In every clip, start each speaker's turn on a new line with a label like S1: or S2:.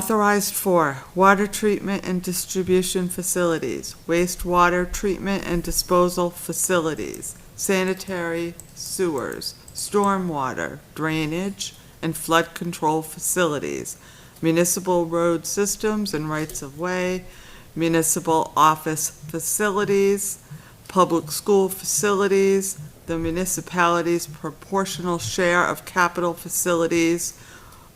S1: authorized for water treatment and distribution facilities, wastewater treatment and disposal facilities, sanitary sewers, stormwater, drainage, and flood control facilities, municipal road systems and rights of way, municipal office facilities, public school facilities, the municipality's proportional share of capital facilities,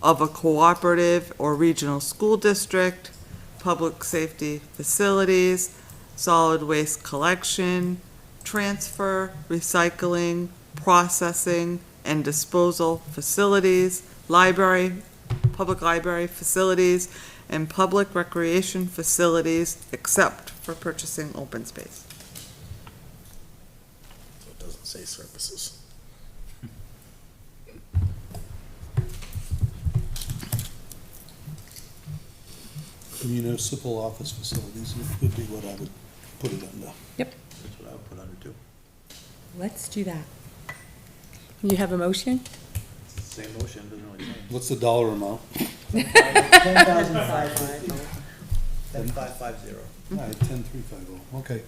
S1: of a cooperative or regional school district, public safety facilities, solid waste collection, transfer, recycling, processing, and disposal facilities, library, public library facilities, and public recreation facilities, except for purchasing open space.
S2: It doesn't say services.
S3: The municipal office facilities would be what I would put it under.
S4: Yep.
S3: That's what I would put under too.
S4: Let's do that. You have a motion?
S5: Same motion, doesn't really change.
S3: What's the dollar amount?
S6: Ten thousand five hundred.
S5: Ten five five zero.
S3: All right, ten three five oh, okay.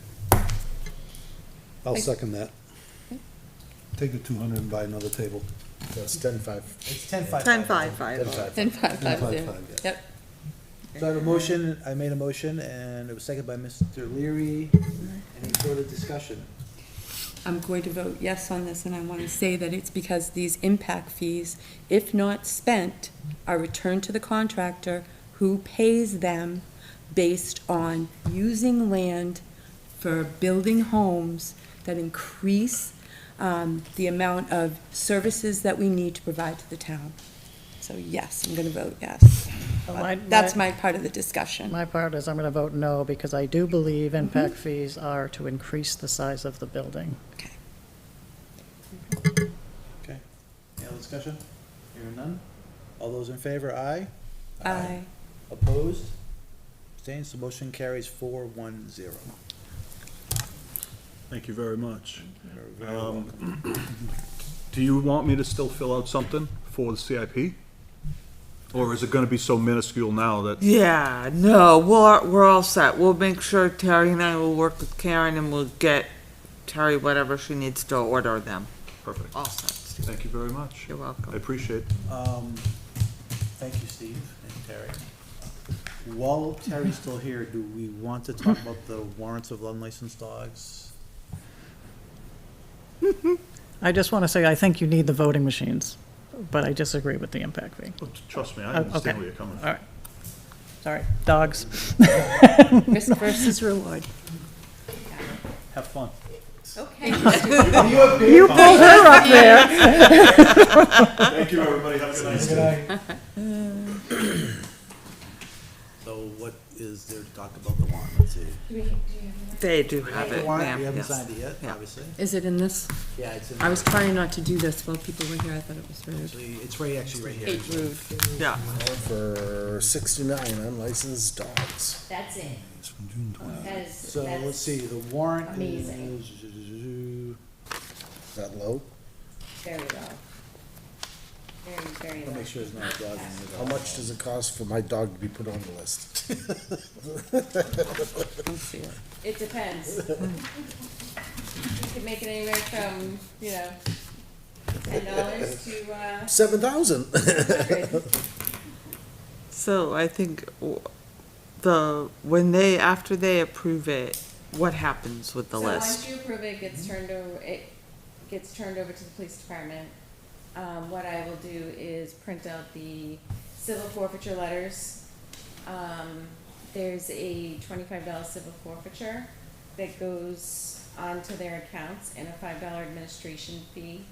S3: I'll
S4: I-
S3: second that. Take the two hundred and buy another table.
S2: That's ten five.
S6: It's ten five.
S1: Ten five five.
S2: Ten five.
S4: Ten
S3: Ten
S4: five five
S3: five
S4: zero.
S3: five, yeah.
S4: Yep.
S5: So I have a motion, I made a motion, and it was seconded by Mr. Leary. Any further discussion?
S4: I'm going to vote yes on this, and I want to say that it's because these impact fees, if not spent, are returned to the contractor who pays them based on using land for building homes that increase um, the amount of services that we need to provide to the town. So yes, I'm going to vote yes.
S6: Oh, my-
S4: That's my part of the discussion.
S6: My part is I'm gonna vote no, because I do believe impact fees are to increase the size of the building.
S5: Okay. Any other discussion? Hearing none? All those in favor, aye?
S4: Aye.
S5: Opposed? Abstained, so motion carries four one zero.
S7: Thank you very much. Um,
S5: You're very welcome.
S7: Do you want me to still fill out something for the CIP? Or is it gonna be so minuscule now that,
S1: Yeah, no, we're, we're all set. We'll make sure Terry and I will work with Karen and we'll get Terry whatever she needs to order them.
S7: perfect.
S1: All set, Steve.
S7: Thank you very much.
S1: You're
S7: I
S1: welcome.
S7: appreciate it.
S5: Um, thank you, Steve and Terry. While Terry's still here, do we want to talk about the warrants of unlicensed dogs?
S6: I just wanna say, I think you need the voting machines, but I disagree with the impact fee.
S7: Well, t- Trust me, I
S6: Oh, okay.
S7: understand where you're coming
S6: All
S7: from.
S6: right. Sorry, dogs.
S4: Risk versus reward.
S5: Have fun.
S4: Okay.
S6: You pulled her up there.
S7: Thank you, everybody. Have a good night.
S5: So what is there to talk about the warrant? Let's see.
S1: They do have it,
S5: The warrant,
S1: ma'am,
S5: we haven't
S1: yes.
S5: signed it yet,
S1: Yeah.
S5: obviously.
S4: Is it in this?
S5: Yeah, it's in,
S4: I was trying not to do this while people were here, I thought it was rude.
S5: actually- it's right, actually right here.
S4: rude.
S1: Yeah.
S2: For sixty-nine unlicensed dogs.
S8: That's it.
S3: It's from June twenty.
S8: That is.
S5: Uh, So
S8: that's-
S5: let's see, the warrant
S8: Amazing.
S5: is,
S2: Is that low?
S8: Very low. Very, very
S5: I'll
S8: low.
S5: make sure there's not a dog in
S2: How much does it cost for my dog to be put on the list?
S8: It depends. You could make it anywhere from, you know, ten dollars to, uh,
S2: Seven thousand.
S8: hundred.
S1: So I think w- the, when they, after they approve it, what happens with the
S8: So
S1: list?
S8: once you approve it, it gets turned over, it gets turned over to the police department. Um, what I will do is print out the civil forfeiture letters. Um, there's a twenty-five dollar civil forfeiture that goes onto their accounts and a five dollar administration fee.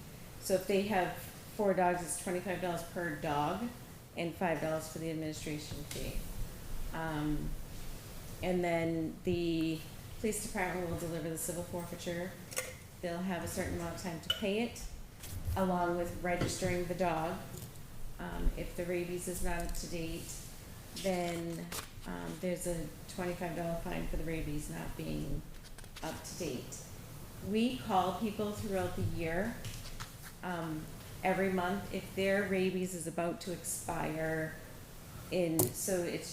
S8: So if they have four dogs, it's twenty-five dollars per dog and five dollars for the administration fee. Um, and then the police department will deliver the civil forfeiture. They'll have a certain amount of time to pay it, along with registering the dog. Um, if the rabies is not up to date, then, um, there's a twenty-five dollar fine for the rabies not being up to date. We call people throughout the year, um, every month, if their rabies is about to expire, in, so it's